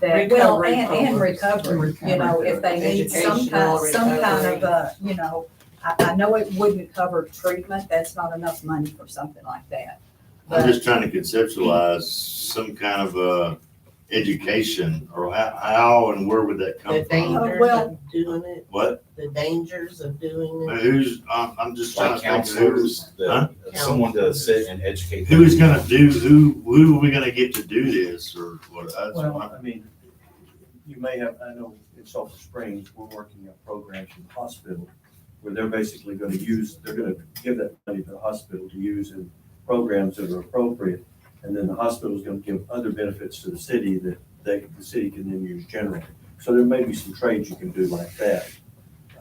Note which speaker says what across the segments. Speaker 1: that.
Speaker 2: Well, and,
Speaker 3: recovery
Speaker 2: and
Speaker 3: programs.
Speaker 2: recovery, you know, if they need some
Speaker 3: Educational
Speaker 2: kind, some kind of
Speaker 3: recovery.
Speaker 2: a, you know, I, I know it wouldn't cover treatment, that's not enough money for something like that.
Speaker 4: I'm
Speaker 2: But
Speaker 4: just trying to conceptualize some kind of, uh, education or how, how and where would that come
Speaker 3: The
Speaker 4: from?
Speaker 2: Oh,
Speaker 3: dangers
Speaker 2: well-
Speaker 3: of doing it,
Speaker 4: What,
Speaker 3: the dangers of doing it.
Speaker 4: who's, I'm, I'm just trying
Speaker 5: Like
Speaker 4: to think of who's,
Speaker 5: counselors, the,
Speaker 4: Huh?
Speaker 5: someone to sit and educate.
Speaker 4: who is gonna do, who, who are we gonna get to do this or what? That's
Speaker 6: Well,
Speaker 4: what
Speaker 6: I mean, you may have, I know in Sulphur Springs, we're working on programs in the hospital where they're basically gonna use, they're gonna give that money to the hospital to use in programs that are appropriate. And then the hospital's gonna give other benefits to the city that they, the city can then use generally. So there may be some trades you can do like that.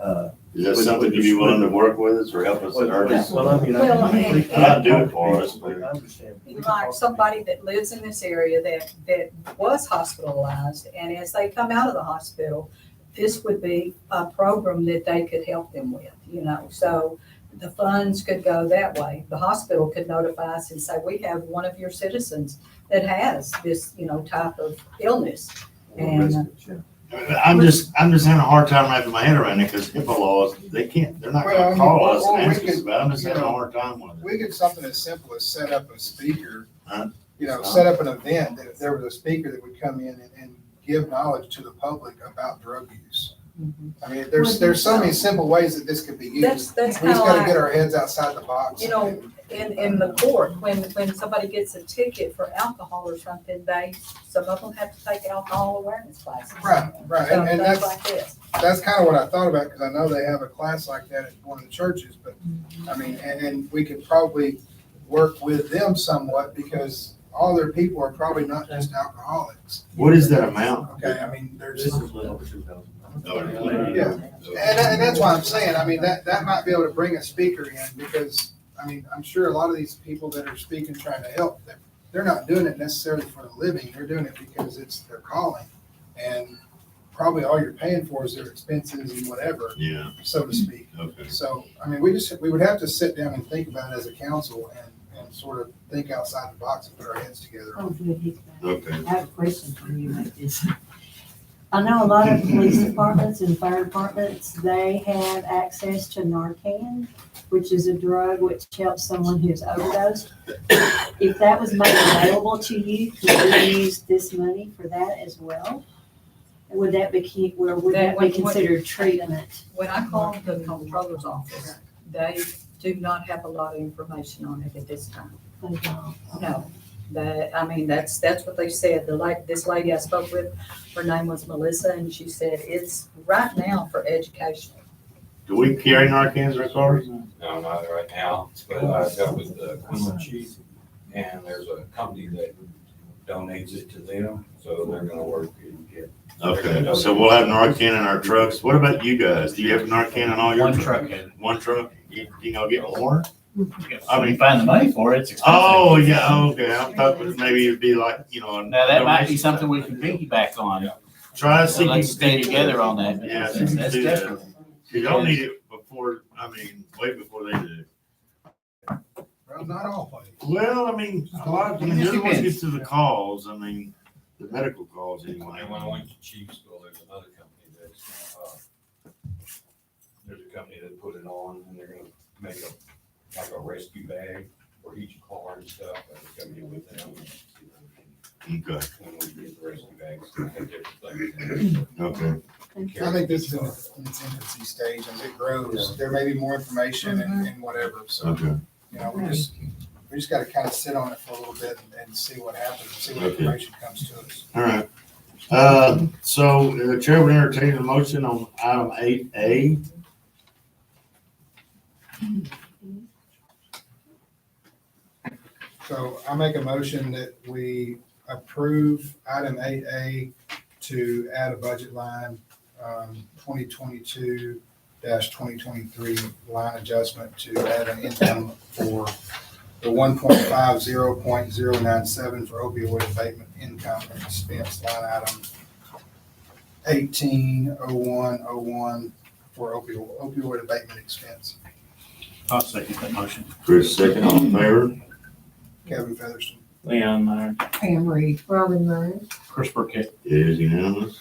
Speaker 6: Uh,
Speaker 4: Is that something you'd be willing to work with us or help us in earnest?
Speaker 6: Well, I mean, I-
Speaker 2: Well, and-
Speaker 6: I- I-
Speaker 4: Not do it for us,
Speaker 6: I
Speaker 4: but-
Speaker 6: understand.
Speaker 2: like somebody that lives in this area that, that was hospitalized, and as they come out of the hospital, this would be a program that they could help them with, you know, so the funds could go that way. The hospital could notify us and say, we have one of your citizens that has this, you know, type of illness. And,
Speaker 4: I'm just, I'm just having a hard time wrapping my head around it because HIPAA laws, they can't, they're not
Speaker 7: Well, I
Speaker 4: gonna
Speaker 7: mean,
Speaker 4: call
Speaker 7: or-
Speaker 4: us
Speaker 7: or
Speaker 4: and
Speaker 7: we
Speaker 4: ask us
Speaker 7: could,
Speaker 4: about it. I'm just
Speaker 7: you
Speaker 4: having a
Speaker 7: know,
Speaker 4: hard time with it.
Speaker 7: We could something as simple as set up a speaker,
Speaker 4: Huh?
Speaker 7: you know, set up an event, that if there was a speaker that would come in and, and give knowledge to the public about drug use.
Speaker 2: Mm-hmm.
Speaker 7: I mean, there's, there's so many simple ways that this could be
Speaker 2: That's-
Speaker 7: used.
Speaker 2: that's
Speaker 7: We just
Speaker 2: how
Speaker 7: gotta
Speaker 2: I-
Speaker 7: get our heads outside the box.
Speaker 2: You know, in, in the court, when, when somebody gets a ticket for alcohol or something, they, some of them have to take alcohol awareness classes.
Speaker 7: Right, right, and, and
Speaker 2: Things
Speaker 7: that's,
Speaker 2: like this.
Speaker 7: that's kind of what I thought about, because I know they have a class like that at one of the churches, but,
Speaker 2: Mm-hmm.
Speaker 7: I mean, and, and we could probably work with them somewhat, because all their people are probably not just alcoholics.
Speaker 4: What is that amount?
Speaker 7: Okay, I mean,
Speaker 6: This
Speaker 7: there's,
Speaker 6: is
Speaker 7: and,
Speaker 6: a little over two thousand.
Speaker 4: Oh,
Speaker 6: really?
Speaker 7: Yeah. that- and that's why I'm saying, I mean, that, that might be able to bring a speaker in, because, I mean, I'm sure a lot of these people that are speaking, trying to help, they're, they're not doing it necessarily for a living, they're doing it because it's their calling, and probably all you're paying for is their expenses and whatever,
Speaker 4: Yeah,
Speaker 7: so to speak.
Speaker 4: okay.
Speaker 7: So, I mean, we just, we would have to sit down and think about it as a council and, and sort of think outside the box and put our heads together.
Speaker 8: Oh, good, he's back.
Speaker 4: Okay.
Speaker 8: I have a question for you like this. I know a lot of police departments and fire departments, they have access to Narcan, which is a drug which helps someone who's overdosed. If that was made available to you, could you use this money for that as well? And Would that be, key- where would
Speaker 2: That
Speaker 8: that be
Speaker 2: would- would-
Speaker 8: considered treatment?
Speaker 2: When I called the comptroller's office, they do not have a lot of information on it at this time.
Speaker 8: Like, um,
Speaker 2: No, that, I mean, that's, that's what they said. The like, this lady I spoke with, her name was Melissa, and she said it's right now for education.
Speaker 4: Do we carry Narcan in our cars?
Speaker 5: No, not right now, but I got with the Quinlan chief, and there's a company that donates it to them, so they're gonna work and get.
Speaker 4: Okay, so we'll have Narcan in our trucks. What about you guys? Do you have Narcan in all your?
Speaker 9: One
Speaker 4: trucks?
Speaker 9: truck, and
Speaker 4: One truck? You, you gonna get more?
Speaker 9: I mean, find the money for it, it's expensive.
Speaker 4: Oh, yeah, okay. I'm talking, maybe it'd be like, you know. a
Speaker 9: Now, that might be
Speaker 4: donation.
Speaker 9: something we can piggyback on.
Speaker 4: Try to
Speaker 9: So
Speaker 4: see.
Speaker 9: Let's stay together on that.
Speaker 4: Yeah,
Speaker 9: That's- That's
Speaker 4: do that.
Speaker 9: definitely.
Speaker 4: You don't need it before, I mean, way before they do.
Speaker 7: Well, not always.
Speaker 4: Well, I mean, a lot, I mean, the other ones get to the calls, I mean, the medical calls anyway.
Speaker 5: And when I went to Chiefs, well, there's another company that's, uh, there's a company that put it on, and they're gonna make a, like a rescue bag for each car and stuff, and it's gonna be with them.
Speaker 4: Okay,
Speaker 5: When we get the rescue bags, we have different things.
Speaker 4: okay.
Speaker 7: I think this is in its in its infancy stage, as it grows, there may be more information and, and whatever, so,
Speaker 4: Okay.
Speaker 7: you know, we just, we just gotta kind of sit on it for a little bit and, and see what happens, see what
Speaker 4: Okay.
Speaker 7: information comes to us.
Speaker 4: All right. Uh, so the chair would entertain a motion on item eight A.
Speaker 7: So I make a motion that we approve item eight A to add a budget line, um, twenty twenty-two twenty twenty-three line adjustment to add an income for the one point five zero point zero nine seven for opioid abatement income and expense line item eighteen oh one oh one for opioid, opioid abatement expense.
Speaker 9: I'll second that motion.
Speaker 4: Chris, second, all in favor?
Speaker 7: Kevin Featherston.
Speaker 2: Leon Meyer,
Speaker 10: Pam Reed, Robin Murray.
Speaker 2: Chris Burkett.
Speaker 4: It is unanimous.